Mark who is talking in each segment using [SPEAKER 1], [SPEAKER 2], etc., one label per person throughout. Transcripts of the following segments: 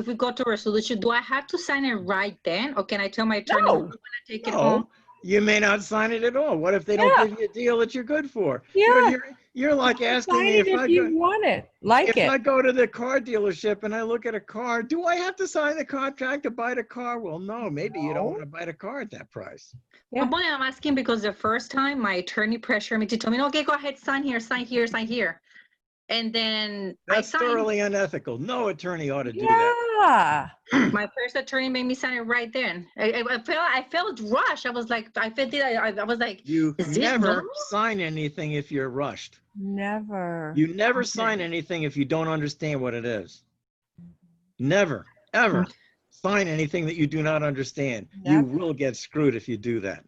[SPEAKER 1] If we go to resolution, do I have to sign it right then? Or can I tell my attorney
[SPEAKER 2] No.
[SPEAKER 1] "We're gonna take it
[SPEAKER 2] No.
[SPEAKER 1] home?
[SPEAKER 2] You may not sign it at all. What if they
[SPEAKER 3] Yeah.
[SPEAKER 2] don't give you a deal that you're good for? You're-
[SPEAKER 3] Yeah,
[SPEAKER 2] You're, you're like asking
[SPEAKER 3] sign
[SPEAKER 2] me
[SPEAKER 3] it
[SPEAKER 2] if I
[SPEAKER 3] if you
[SPEAKER 2] go,
[SPEAKER 3] want it, like
[SPEAKER 2] if I
[SPEAKER 3] it.
[SPEAKER 2] go to the car dealership and I look at a car, do I have to sign the contract to buy the car? Well, no, maybe you
[SPEAKER 3] No.
[SPEAKER 2] don't want to buy the car at that price.
[SPEAKER 3] Yeah.
[SPEAKER 1] But I'm asking because the first time my attorney pressured me to tell me, okay, go ahead, sign here, sign here, sign here. And then I
[SPEAKER 2] That's
[SPEAKER 1] signed,
[SPEAKER 2] thoroughly unethical. No attorney ought to do that.
[SPEAKER 3] Yeah,
[SPEAKER 1] my first attorney made me sign it right then. I, I- I felt, I felt rushed. I was like, I felt, I, I I was like,
[SPEAKER 2] You
[SPEAKER 1] Is this
[SPEAKER 2] never
[SPEAKER 1] normal?
[SPEAKER 2] sign anything if you're rushed.
[SPEAKER 3] never.
[SPEAKER 2] You never
[SPEAKER 1] Okay.
[SPEAKER 2] sign anything if you don't understand what it is. Never, ever sign anything that you do not understand. You
[SPEAKER 3] Never.
[SPEAKER 2] will get screwed if you do that.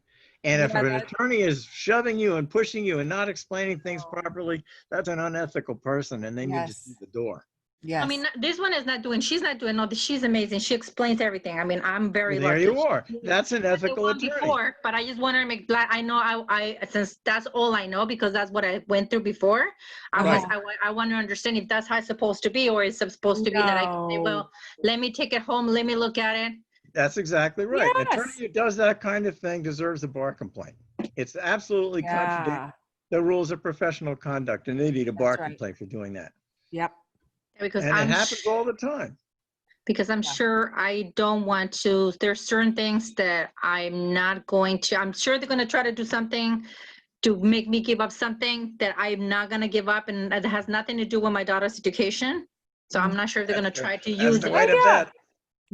[SPEAKER 2] And if
[SPEAKER 3] Yeah,
[SPEAKER 2] an
[SPEAKER 3] that-
[SPEAKER 2] attorney is shoving you and pushing you and not explaining things properly, that's an unethical person and then you just
[SPEAKER 3] Yes.
[SPEAKER 2] leave the door.
[SPEAKER 3] Yes.
[SPEAKER 1] I mean, this one is not doing, she's not doing, no, she's amazing. She explains everything. I mean, I'm very
[SPEAKER 2] Well,
[SPEAKER 1] lucky.
[SPEAKER 2] There you are.
[SPEAKER 1] She-
[SPEAKER 2] That's
[SPEAKER 1] But
[SPEAKER 2] an
[SPEAKER 1] the
[SPEAKER 2] ethical
[SPEAKER 1] one
[SPEAKER 2] attorney.
[SPEAKER 1] Before, but I just wanted to make glad. I know I, I since that's all I know because that's what I went through before. I was I, wa- I want to understand if that's how it's supposed to be or is it supposed to be that I can say,
[SPEAKER 3] No.
[SPEAKER 1] well, let me take it home, let me look at it.
[SPEAKER 2] That's exactly right. An attorney
[SPEAKER 3] Yes.
[SPEAKER 2] who does that kind of thing deserves a bar complaint. It's absolutely contradicting
[SPEAKER 3] Yeah,
[SPEAKER 2] the rules of professional conduct and they need a bar
[SPEAKER 3] right.
[SPEAKER 2] complaint for doing that.
[SPEAKER 3] yep.
[SPEAKER 1] Because
[SPEAKER 2] And it
[SPEAKER 1] I'm
[SPEAKER 2] happens
[SPEAKER 1] su-
[SPEAKER 2] all the time.
[SPEAKER 1] because I'm
[SPEAKER 3] Yeah.
[SPEAKER 1] sure I don't want to. There's certain things that I'm not going to. I'm sure they're gonna try to do something to make me give up something that I'm not gonna give up, and that has nothing to do with my daughter's education. So I'm not sure if they're gonna
[SPEAKER 2] Mm-hmm. That's the-
[SPEAKER 1] try to
[SPEAKER 2] That's
[SPEAKER 1] use
[SPEAKER 2] the
[SPEAKER 1] it.
[SPEAKER 2] way to
[SPEAKER 3] Oh, yeah.
[SPEAKER 2] bet.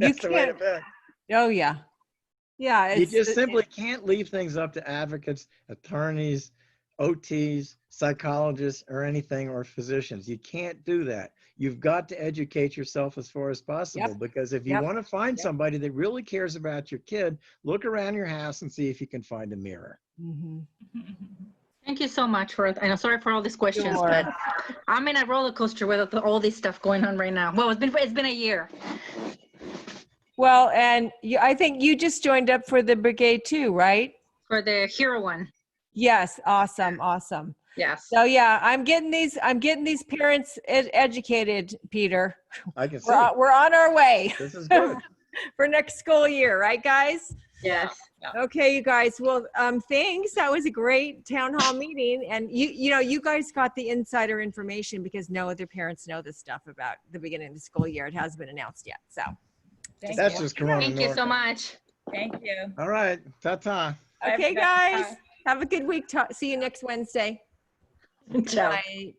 [SPEAKER 3] You
[SPEAKER 2] That's the way to
[SPEAKER 3] can't,
[SPEAKER 2] bet.
[SPEAKER 3] oh, yeah. Yeah.
[SPEAKER 2] You
[SPEAKER 3] it's-
[SPEAKER 2] just
[SPEAKER 3] it-
[SPEAKER 2] simply can't leave things up to advocates, attorneys, OTs, psychologists, or anything, or physicians. You can't do that. You've got to educate yourself as far as possible, because if you
[SPEAKER 3] Yep.
[SPEAKER 2] want to find
[SPEAKER 3] Yep.
[SPEAKER 2] somebody that really cares about your kid, look around your house and see if you can find a mirror.
[SPEAKER 3] Mhm.
[SPEAKER 1] Thank you so much for, and I'm sorry for all these questions,
[SPEAKER 3] Sure.
[SPEAKER 1] but I'm in a roller coaster with all this stuff going on right now. Well, it's been, it's been a year.
[SPEAKER 3] Well, and you, I think you just joined up for the brigade too, right?
[SPEAKER 1] For the hero one,
[SPEAKER 3] Yes, awesome, awesome.
[SPEAKER 1] yes.
[SPEAKER 3] So yeah, I'm getting these, I'm getting these parents ed- educated, Peter.
[SPEAKER 2] I can see,
[SPEAKER 3] We're, on- we're on our way
[SPEAKER 2] this is good.
[SPEAKER 3] for next school year, right, guys?
[SPEAKER 1] Yes.
[SPEAKER 3] Okay, you guys. Well, um, thanks. That was a great town hall meeting, and you, you know, you guys got the insider information because no other parents know this stuff about the beginning of the school year. It hasn't been announced yet, so.
[SPEAKER 2] That's just Corona
[SPEAKER 1] Thank you so
[SPEAKER 2] Norco.
[SPEAKER 1] much.
[SPEAKER 4] Thank you.
[SPEAKER 2] All right, ta-ta.
[SPEAKER 4] Bye,
[SPEAKER 3] Okay,
[SPEAKER 4] everybody.
[SPEAKER 3] guys. Have a good week. Ta- See you next Wednesday.
[SPEAKER 1] Ciao.
[SPEAKER 3] Bye.